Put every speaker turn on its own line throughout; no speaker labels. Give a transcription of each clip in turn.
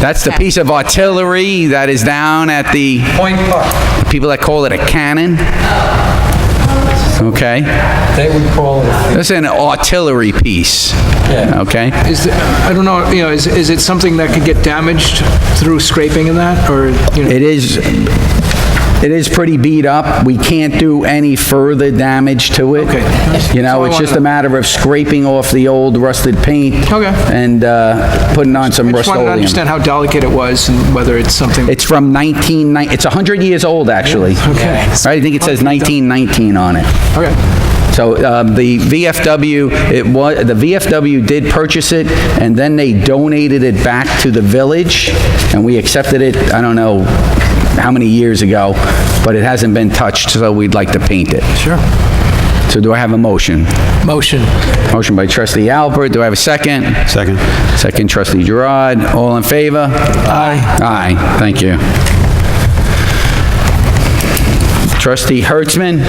That's the piece of artillery that is down at the,
Point
uh,
Park,
people that call it a cannon. Okay?
they would call it a...
That's an artillery piece.
Yeah.
Okay?
Is, it- I don't know, you know, is, is it something that could get damaged through scraping and that, or, you know?
It is, it is pretty beat up. We can't do any further damage to it.
Okay.
You know,
That's all I
it's just a
wanted.
matter of scraping off the old rusted paint.
Okay.
And uh, putting on some
I just wanted to
Rust-Oleum.
understand how delicate it was and whether it's something,
It's from 1990, it's 100 years old, actually.
okay,
Right, I think it says 1919 on it.
okay.
So um, the VFW, it was, the VFW did purchase it, and then they donated it back to the village, and we accepted it, I don't know how many years ago, but it hasn't been touched, so we'd like to paint it. Sure. So do I have a motion?
Motion.
Motion by trustee Albert, do I have a second? Second. Second trustee Gerard, all in favor?
Uh,
Aye. Aye, thank you. Trustee Hertzman?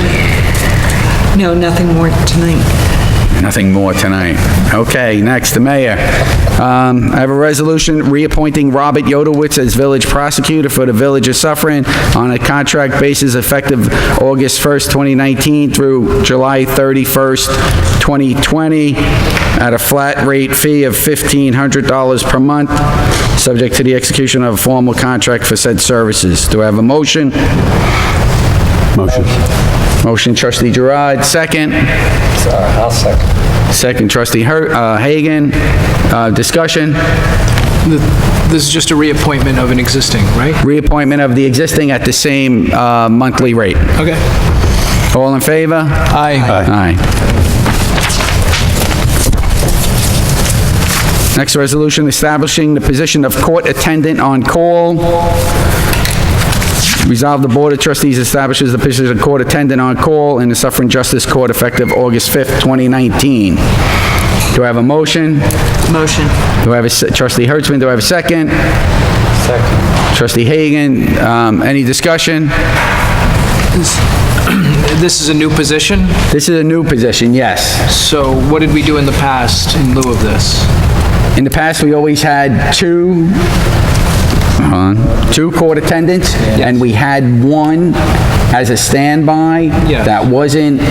No, nothing more tonight.
Nothing more tonight. Okay, next, the mayor. Um, I have a resolution reappointing Robert Yodowitz as village prosecutor for the village of Suffering on a contract basis effective August 1st, 2019 through July 31st, 2020, at a flat rate fee of $1,500 per month, subject to the execution of a formal contract for said services. Do I have a motion? Motion. Motion trustee Gerard, second.
I'll second.
Second trustee Her- uh, Hagan, Uh, discussion,
The- This is just a reappointment of an existing, right?
reappointment of the existing at the same uh, monthly rate.
Okay.
All in favor?
Aye.
Aye. Next resolution, establishing the position of court attendant on call. Resolve the Board of Trustees establishes the position of court attendant on call in the Suffering Justice Court effective August 5th, 2019. Do I have a motion?
Motion.
Do I have a, se- trustee Hertzman, do I have a second? Second. Trustee Hagan, um, any discussion?
This is a new position,
This is a new position, yes.
so what did we do in the past in lieu of this?
In the past, we always had two, hold on, two court attendants, and we had one as a standby
Yeah.
that wasn't,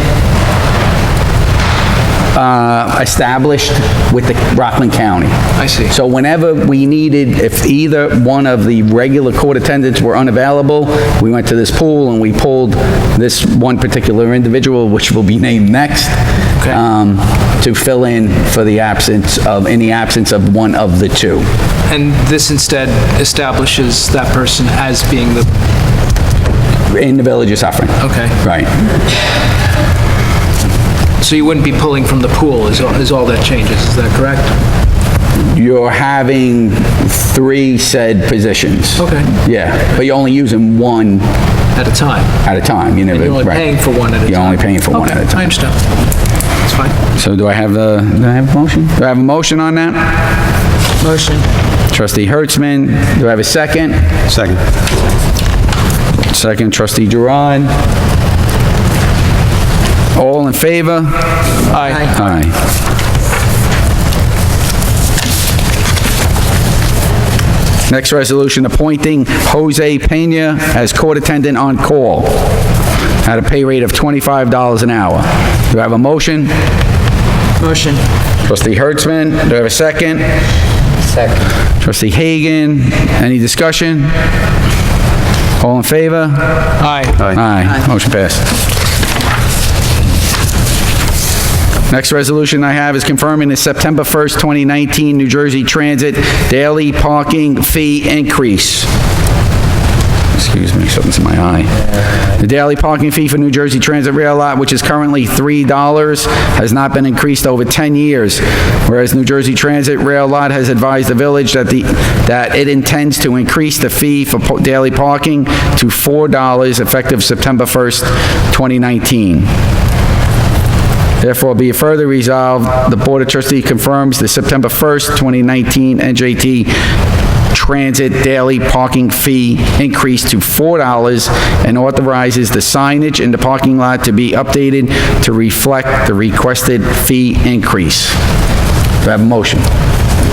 uh, established with the Rockland County.
I see.
So whenever we needed, if either one of the regular court attendants were unavailable, we went to this pool and we pulled this one particular individual, which will be named next, um, to fill in for the absence of, in the absence of one of the two.
And this instead establishes that person as being the,
In the village of Suffering.
okay.
Right.
So you wouldn't be pulling from the pool is, all- is all that changes, is that correct?
You're having three said positions.
Okay.
Yeah, but you're only using one
At a time?
at a time. You never-
You're only
right.
paying for one at a time?
You're only paying for one
Okay,
at a time.
I understand. It's fine.
So do I have the, do I have a motion? Do I have a motion on that?
Motion.
Trustee Hertzman, do I have a second?
Second.
Second, trustee Duran. All in favor?
Aye.
Aye. Next resolution, appointing Jose Peña as court attendant on call at a pay rate of $25 an hour. Do I have a motion?
Motion.
Trustee Hertzman, do I have a second? Second. Trustee Hagan, any discussion? All in favor?
Aye.
Aye. Motion passed. Next resolution I have is confirming the September 1st, 2019 New Jersey Transit Daily Parking Fee Increase. Excuse me, something's in my eye. The daily parking fee for New Jersey Transit Rail Lot, which is currently $3, has not been increased over 10 years, whereas New Jersey Transit Rail Lot has advised the village that the, that it intends to increase the fee for po- daily parking to $4 effective September 1st, 2019. Therefore, be it further resolved, the Board of Trustees confirms the September 1st, 2019 NJT Transit Daily Parking Fee increase to $4 and authorizes the signage in the parking lot to be updated to reflect the requested fee increase. Do I have a motion?